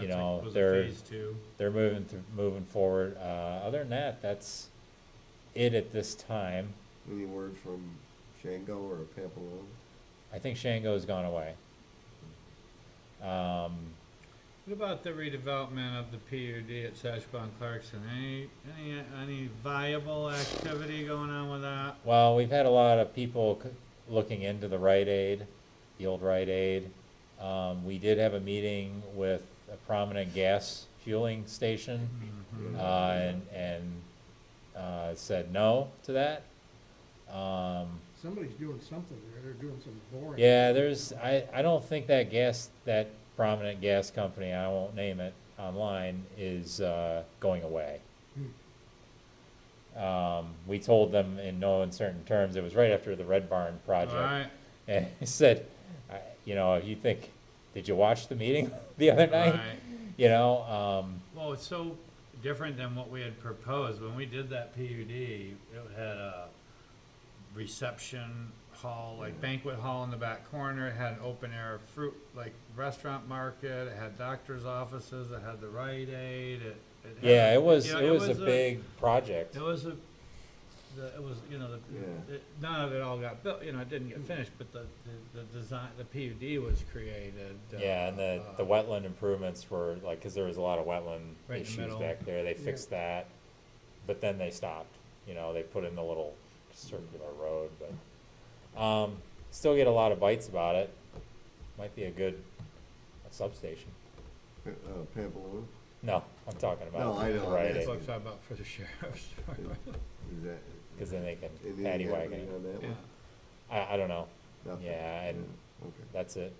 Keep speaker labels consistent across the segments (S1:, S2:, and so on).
S1: you
S2: That's
S1: know,
S2: like, was
S1: they're.
S2: it phase two?
S1: they're moving through, moving forward. Uh, other than that, that's it at this time.
S3: Any word from Shango or Pampelon?
S1: I think Shango's gone away. Um,
S2: What about the redevelopment of the PUD at Sashbon Clarkson? Any, any, any viable activity going on with that?
S1: well, we've had a lot of people c- looking into the Rite Aid, the old Rite Aid. Um, we did have a meeting with a prominent gas fueling station.
S2: Mhm.
S1: uh, and, and, uh, said no to that. Um,
S4: Somebody's doing something there, they're doing some boring.
S1: yeah, there's, I, I don't think that gas, that prominent gas company, I won't name it, online is, uh, going away.
S4: Hmm.
S1: Um, we told them in no uncertain terms, it was right after the Red Barn project.
S2: Alright,
S1: And I said, I, you know, you think, did you watch the meeting the other night?
S2: alright.
S1: You know, um,
S2: Well, it's so different than what we had proposed. When we did that PUD, it had a reception hall, like banquet hall in the back corner, it had an open air fruit, like restaurant market, it had doctor's offices, it had the Rite Aid, it. had-
S1: yeah, it was,
S2: you know,
S1: it was a big project.
S2: It was a, the, it was, you know, the,
S3: Yeah.
S2: it- none of it all got built, you know, it didn't get finished, but the, the, the design, the PUD was created. uh,
S1: Yeah, and the, the
S2: uh,
S1: wetland improvements were, like, cause there was a lot of wetland
S2: Right in the
S1: issues
S2: middle.
S1: back there, they fixed that. But then they stopped, you know, they put in the little circular road, but, um, still get a lot of bites about it. Might be a good substation.
S3: Uh, Pampelon,
S1: No, I'm talking
S3: No,
S1: about
S3: I
S1: the
S3: know,
S1: Rite
S2: That's
S1: Aid,
S2: what I'm talking about for the sheriff's. department.
S3: is that?
S1: cause then they
S3: anything
S1: can paddy wagon
S3: happening
S1: it.
S3: On that
S2: Yeah.
S3: one?
S1: I, I don't know,
S3: Nothing?
S1: Yeah, and-
S3: Yeah, Okay,
S1: that's it.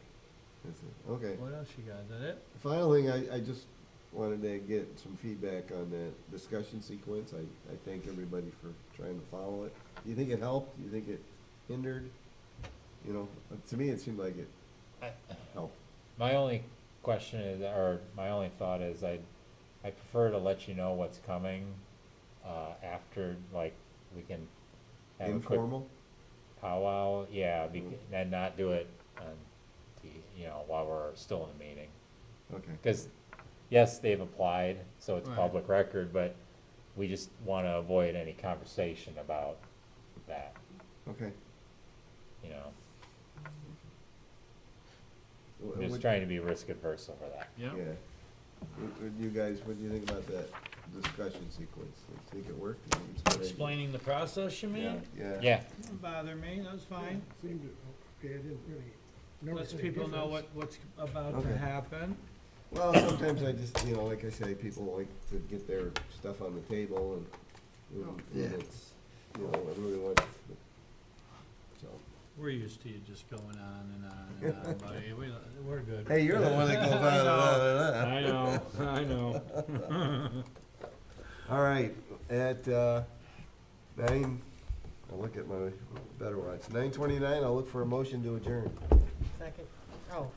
S3: that's it, okay.
S2: What else you got, is that it?
S3: Final thing, I, I just wanted to get some feedback on that discussion sequence. I, I thank everybody for trying to follow it. Do you think it helped? Do you think it hindered? You know, uh, to me, it seemed like it
S1: I-
S3: helped.
S1: My only question is, or my only thought is, I, I prefer to let you know what's coming, uh, after, like, we can have a quick
S3: Informal?
S1: powwow, yeah, bec-
S3: Mm.
S1: and not do it on, the you know, while we're still in the meeting.
S3: Okay,
S1: Cause, yes, they've applied, so it's
S2: Right.
S1: public record, but we just wanna avoid any conversation about that,
S3: okay.
S1: you know?
S3: Wh-
S1: Just
S3: what-
S1: trying to be risk adverse over that.
S2: Yeah.
S3: Yeah. What, what do you guys, what do you think about that discussion sequence? Do you think it worked? Do you think it's a good idea?
S2: Explaining the process, you mean?
S3: Yeah.
S1: Yeah,
S2: Didn't bother me, that was fine.
S4: Seemed to, okay, I didn't really
S2: Lets
S4: notice any
S2: people know
S4: difference.
S2: what, what's about to
S3: Okay.
S2: happen.
S3: Well, sometimes I just, you know, like I say, people like to get their stuff on the table and, you know,
S4: Yeah.
S3: and it's, you know, I really want. So,
S2: We're used to you just going on and on and on, buddy, we, we're good.
S3: Hey, you're the one that goes on and on and on.
S2: I know, I know.
S3: All right, at, uh, nine, I'll look at my better watch, nine twenty-nine, I'll look for a motion to adjourn.
S5: Second. Oh,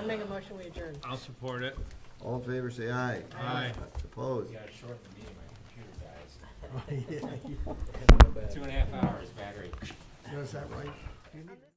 S5: I make a motion, we adjourn.
S2: I'll support it.
S3: All in favor, say aye.
S2: Aye.
S3: Opposed?
S1: Yeah, it's short in the meeting, my computer dies. Two and a half hours battery.
S4: Is that right? Andy?